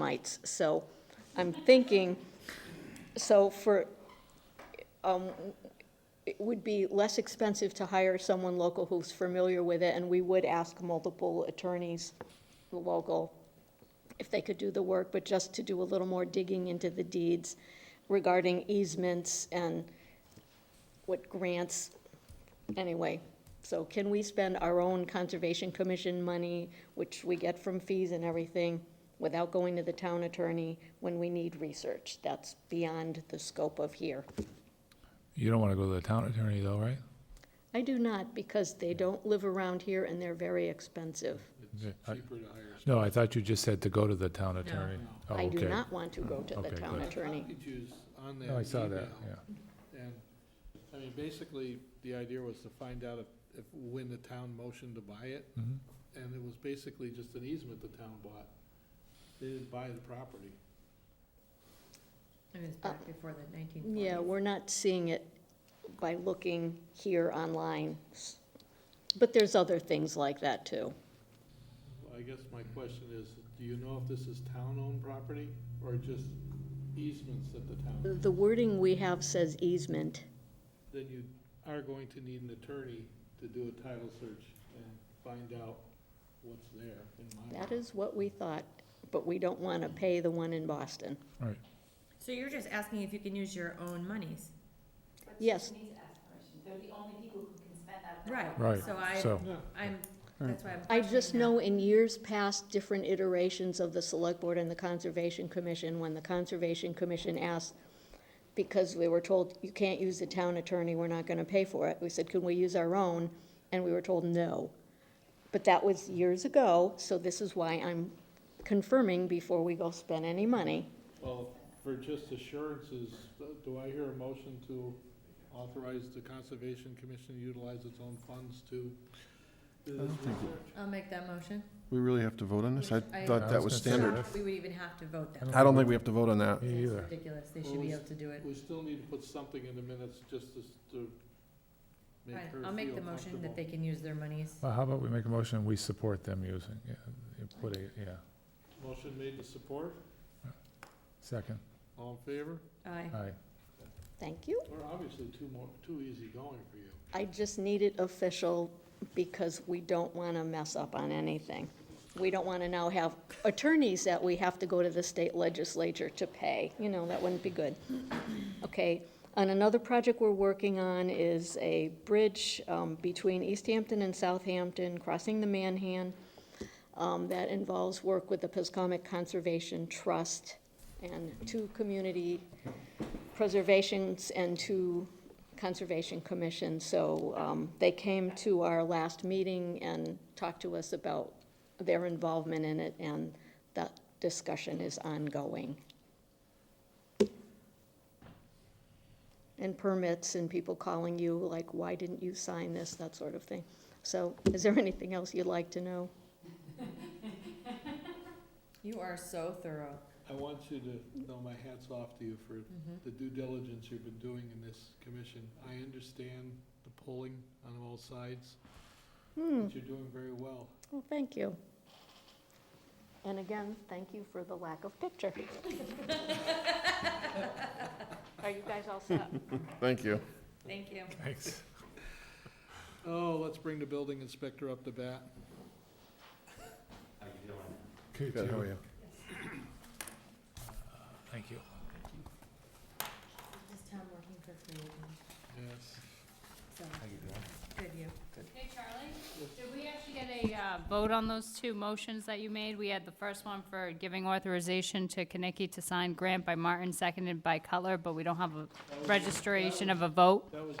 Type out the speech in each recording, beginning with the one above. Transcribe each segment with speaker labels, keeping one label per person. Speaker 1: mites. So I'm thinking, so for, um, it would be less expensive to hire someone local who's familiar with it, and we would ask multiple attorneys, local, if they could do the work, but just to do a little more digging into the deeds regarding easements and what grants, anyway. So can we spend our own Conservation Commission money, which we get from fees and everything, without going to the town attorney when we need research? That's beyond the scope of here.
Speaker 2: You don't want to go to the town attorney though, right?
Speaker 1: I do not, because they don't live around here and they're very expensive.
Speaker 2: Okay, I- No, I thought you just said to go to the town attorney. Oh,
Speaker 1: I do
Speaker 2: okay.
Speaker 1: not want to go to the
Speaker 2: Okay,
Speaker 1: town
Speaker 2: good.
Speaker 1: attorney.
Speaker 3: Copied yous on that
Speaker 2: No, Oh, I saw that,
Speaker 3: email,
Speaker 2: yeah.
Speaker 3: And, I mean, basically, the idea was to find out if, if, when the town motioned to buy it,
Speaker 2: Mhm.
Speaker 3: and it was basically just an easement the town bought. They didn't buy the property.
Speaker 4: I mean, it's back before the nineteen forties.
Speaker 1: Uh, Yeah, we're not seeing it by looking here online. But there's other things like that, too.
Speaker 3: Well, I guess my question is, do you know if this is town-owned property, or just easements that the town?
Speaker 1: The wording we have says easement.
Speaker 3: Then you are going to need an attorney to do a title search and find out what's there, in my mind.
Speaker 1: That is what we thought, but we don't want to pay the one in Boston.
Speaker 2: All right.
Speaker 4: So you're just asking if you can use your own monies?
Speaker 1: Yes.
Speaker 5: Needs aspiration. They're the only people who can spend that.
Speaker 4: Right.
Speaker 2: Right,
Speaker 4: So I,
Speaker 2: so,
Speaker 3: Yeah.
Speaker 4: I'm, that's why I'm.
Speaker 1: I just
Speaker 4: questioning
Speaker 1: know in years past, different iterations of the Select Board and the Conservation Commission, when the Conservation Commission asked, because we were told, you can't use the town attorney, we're not gonna pay for it, we said, can we use our own? And we were told, no. But that was years ago, so this is why I'm confirming before we go spend any money.
Speaker 3: Well, for just assurances, uh, do I hear a motion to authorize the Conservation Commission to utilize its own funds to uh, do this research?
Speaker 4: that. I'll make that motion.
Speaker 6: We really have to vote on this? I
Speaker 4: I-
Speaker 6: thought that was
Speaker 2: I was gonna say
Speaker 6: standard.
Speaker 2: that.
Speaker 4: We would even have to vote that.
Speaker 6: I don't think we have to vote on that.
Speaker 2: Me
Speaker 4: It's
Speaker 2: either.
Speaker 4: ridiculous. They
Speaker 3: Well,
Speaker 4: should be
Speaker 3: we-
Speaker 4: able to do it.
Speaker 3: We still need to put something in the minutes just to, s- to make
Speaker 4: Fine,
Speaker 3: her
Speaker 4: I'll make the
Speaker 3: feel
Speaker 4: motion
Speaker 3: comfortable.
Speaker 4: that they can use their monies.
Speaker 6: Uh,
Speaker 2: Well, how about we make a motion, we support them using, yeah, you put a, yeah,
Speaker 3: Motion made to support,
Speaker 2: second,
Speaker 3: all in favor?
Speaker 4: Aye.
Speaker 6: uh,
Speaker 2: aye.
Speaker 1: Thank you.
Speaker 3: We're obviously too more, too easy going for you.
Speaker 1: I just need it official because we don't want to mess up on anything. We don't want to now have attorneys that we have to go to the state legislature to pay, you know, that wouldn't be good. Okay, and another project we're working on is a bridge um, between East Hampton and Southampton, crossing the Manhan. Um, That involves work with the Piscomic Conservation Trust and two community preservations and two conservation commissions. So um, they came to our last meeting and talked to us about their involvement in it, and that discussion is ongoing. And permits and people calling you, like, why didn't you sign this, that sort of thing. So is there anything else you'd like to know?
Speaker 4: You are so thorough. Mm-hmm.
Speaker 3: I want you to know my hat's off to you for the due diligence you've been doing in this commission. I understand the pulling on all sides,
Speaker 1: Hmm,
Speaker 3: but you're doing very well.
Speaker 1: well, thank you. And again, thank you for the lack of picture. Are you guys all set?
Speaker 6: Thank you.
Speaker 4: Thank you.
Speaker 2: Thanks.
Speaker 3: Oh, let's bring the building inspector up to bat.
Speaker 2: Good,
Speaker 6: Good, how are
Speaker 2: you?
Speaker 6: you?
Speaker 2: Thank you.
Speaker 4: This town working for free again,
Speaker 3: Yes.
Speaker 4: so. Good you.
Speaker 5: Hey, Charlie, did we actually get a uh, vote on those two motions that you made? We had the first one for giving authorization to Kinnicky to sign grant by Martin, seconded by Cutler, but we don't have a registration of a vote,
Speaker 3: That was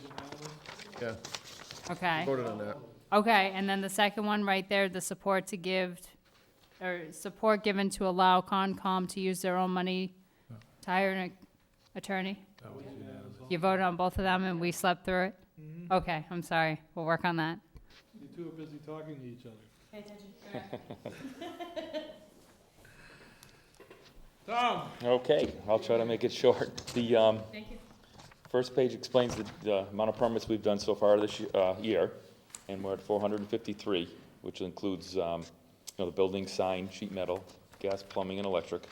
Speaker 3: unanimous.
Speaker 6: Yeah,
Speaker 5: okay?
Speaker 6: voted on that.
Speaker 5: Okay, and then the second one right there, the support to give, or support given to allow Concom to use their own money to hire an attorney? You voted on both of them and we slept through it? Okay, I'm sorry, we'll work on that.
Speaker 3: You two are busy talking to each other. Tom,
Speaker 7: Okay, I'll try to make it short. The, um,
Speaker 5: Thank you.
Speaker 7: first page explains the, the amount of permits we've done so far this, y- uh, year, and we're at four hundred and fifty-three, which includes, um, you know, the building, sign, sheet metal, gas, plumbing, and electric.